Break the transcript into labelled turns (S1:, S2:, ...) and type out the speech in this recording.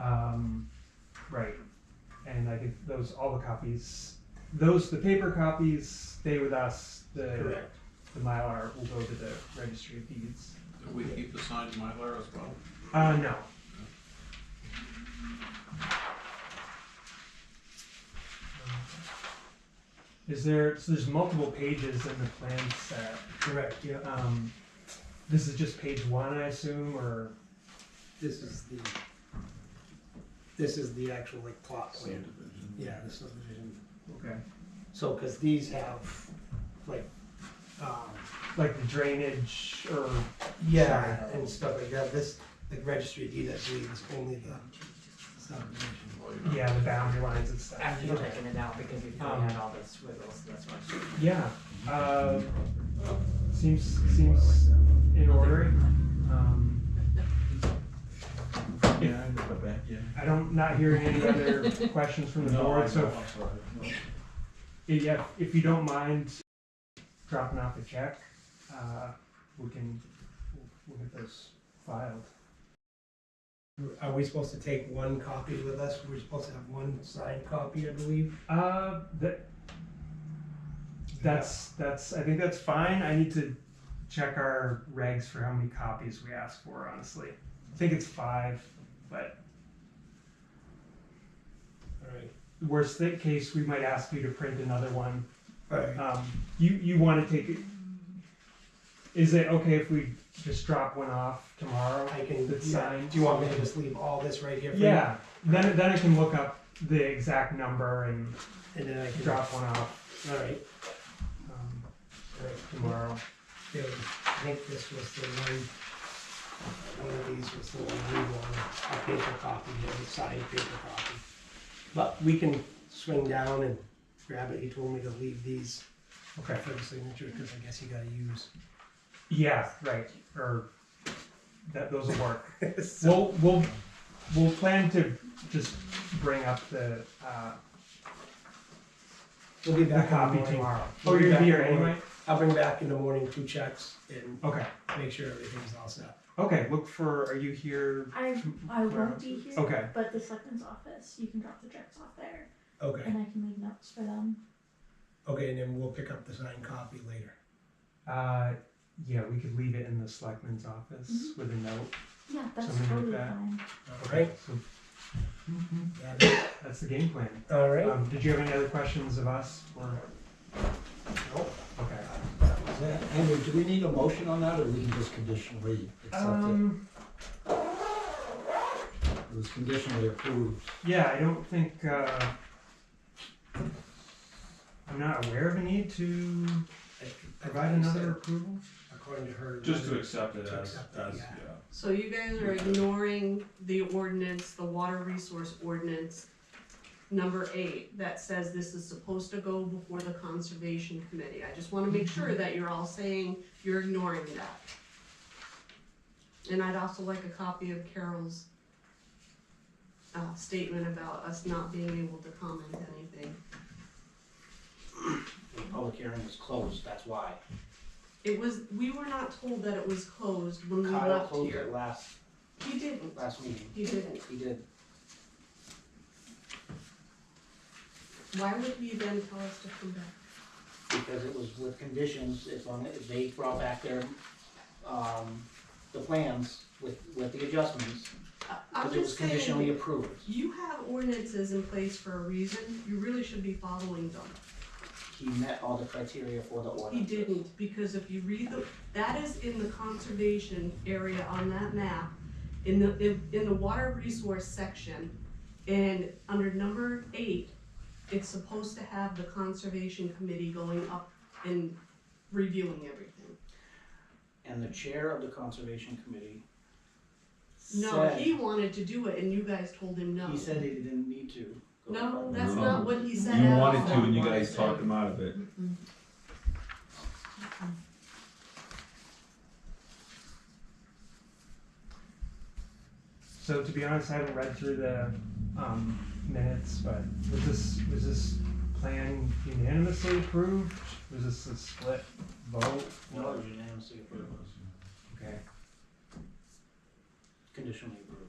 S1: Um, right. And I think those, all the copies, those, the paper copies stay with us. The,
S2: Correct.
S1: the Mylar will go to the registry of deeds.
S2: Do we keep the signed Mylar as well?
S1: Uh, no. Is there, so there's multiple pages in the plan set.
S3: Correct, yeah.
S1: Um, this is just page one, I assume, or,
S3: This is the, this is the actual like plot plan.
S2: Subdivision.
S3: Yeah, the subdivision.
S1: okay.
S3: So, because these have like, um,
S1: Like the drainage or,
S3: yeah, and stuff like that. This, the registry deed, I believe, is only the subdivision.
S2: Well, you know,
S1: yeah, the boundary lines and stuff.
S4: After you've taken it out, because you've
S1: Um,
S4: had all this wiggles, that's why.
S1: Yeah, um, seems, seems in order. Um,
S5: Yeah, I know that, yeah.
S1: I don't, not hearing any other questions from the
S5: No, I
S1: board, so
S5: know,
S1: if
S5: I'm sorry. No.
S1: Yeah, if you don't mind dropping off a check, uh, we can, we'll- we'll get those filed.
S3: Are we supposed to take one copy with us? We're supposed to have one signed copy, I believe.
S1: Uh, that, that's, that's, I think that's fine. I need to check our regs for how many copies we ask for, honestly. I think it's five, but
S3: All right.
S1: worst thi- case, we might ask you to print another one
S3: All right.
S1: Um, you, you wanna take it? Is it okay if we just drop one off tomorrow?
S3: I can,
S1: That's
S3: yeah.
S1: signed.
S3: do you want me to just leave all this right here? for you?
S1: Yeah, then, then I can look up the exact number and
S3: And then I can.
S1: drop one off,
S3: All right,
S1: um,
S3: all right.
S1: tomorrow.
S3: Yeah, I think this was the one, one of these was the one we wanted, a paper copy, you know, a signed paper copy. But we can swing down and grab it, he told me to leave these
S1: Okay,
S3: for the signature, because I guess you gotta use.
S1: yeah, right, or that, those will work. We'll, we'll, we'll plan to just bring up the, uh,
S3: We'll be
S1: the
S3: back in the
S1: copy
S3: morning.
S1: tomorrow.
S3: We'll
S1: Oh, you're
S3: back
S1: gonna be
S3: in
S1: here
S3: the morning.
S1: anyway?
S3: I'll bring back in the morning two checks and
S1: Okay,
S3: make sure everything's all set.
S1: okay, look for, are you here?
S6: I I won't be here,
S1: Okay,
S6: but the selectman's office, you can drop the checks off there,
S3: Okay,
S6: and I can leave notes for them.
S3: okay, and then we'll pick up the signed copy later.
S1: uh, yeah, we could leave it in the selectman's office with a note.
S6: Yeah, that's
S1: Something like
S6: totally
S1: that.
S6: fine.
S3: All right?
S1: So
S3: got it.
S1: that's the game plan.
S3: All right,
S1: Um, did you have any other questions of us? Or,
S3: Nope.
S1: okay.
S5: That was it. Andrew, do we need a motion on that, or we can just conditionally accept it?
S1: Um,
S5: It was conditionally approved.
S1: yeah, I don't think, uh, I'm not aware of a need to provide another approval.
S3: According to her.
S2: Just to accept it
S3: To
S2: as,
S3: accept it,
S2: as,
S3: yeah.
S2: yeah.
S7: So you guys are ignoring the ordinance, the water resource ordinance, number eight, that says this is supposed to go before the conservation committee. I just wanna make sure that you're all saying you're ignoring that. And I'd also like a copy of Carol's uh, statement about us not being able to comment anything.
S8: the public hearing was closed, that's why.
S7: It was, we were not told that it was closed when we
S8: Kyle
S7: left
S8: closed
S7: here.
S8: it last,
S7: He didn't,
S8: last meeting,
S7: he didn't.
S8: he did.
S7: Why would he then tell us to come back?
S8: because it was with conditions, if on, if they brought back their, um, the plans with, with the adjustments,
S7: I- I'm
S8: because it was
S7: just
S8: conditionally
S7: saying,
S8: approved.
S7: you have ordinances in place for a reason, you really should be following them.
S8: He met all the criteria for the order.
S7: He didn't, because if you read the, that is in the conservation area on that map, in the, in, in the water resource section, and under number eight, it's supposed to have the conservation committee going up and reviewing everything.
S8: And the chair of the conservation committee
S7: No,
S8: said-
S7: he wanted to do it and you guys told him no.
S8: He said he didn't need to. go
S7: No,
S8: by the-
S7: that's
S9: No.
S7: not what he said
S9: You
S7: at all.
S9: wanted to, and you guys talked him out of it.
S1: So to be honest, I haven't read through the, um, minutes, but was this, was this plan unanimously approved? Was this a split vote?
S8: No, it was unanimously approved,
S1: Okay.
S8: conditionally approved.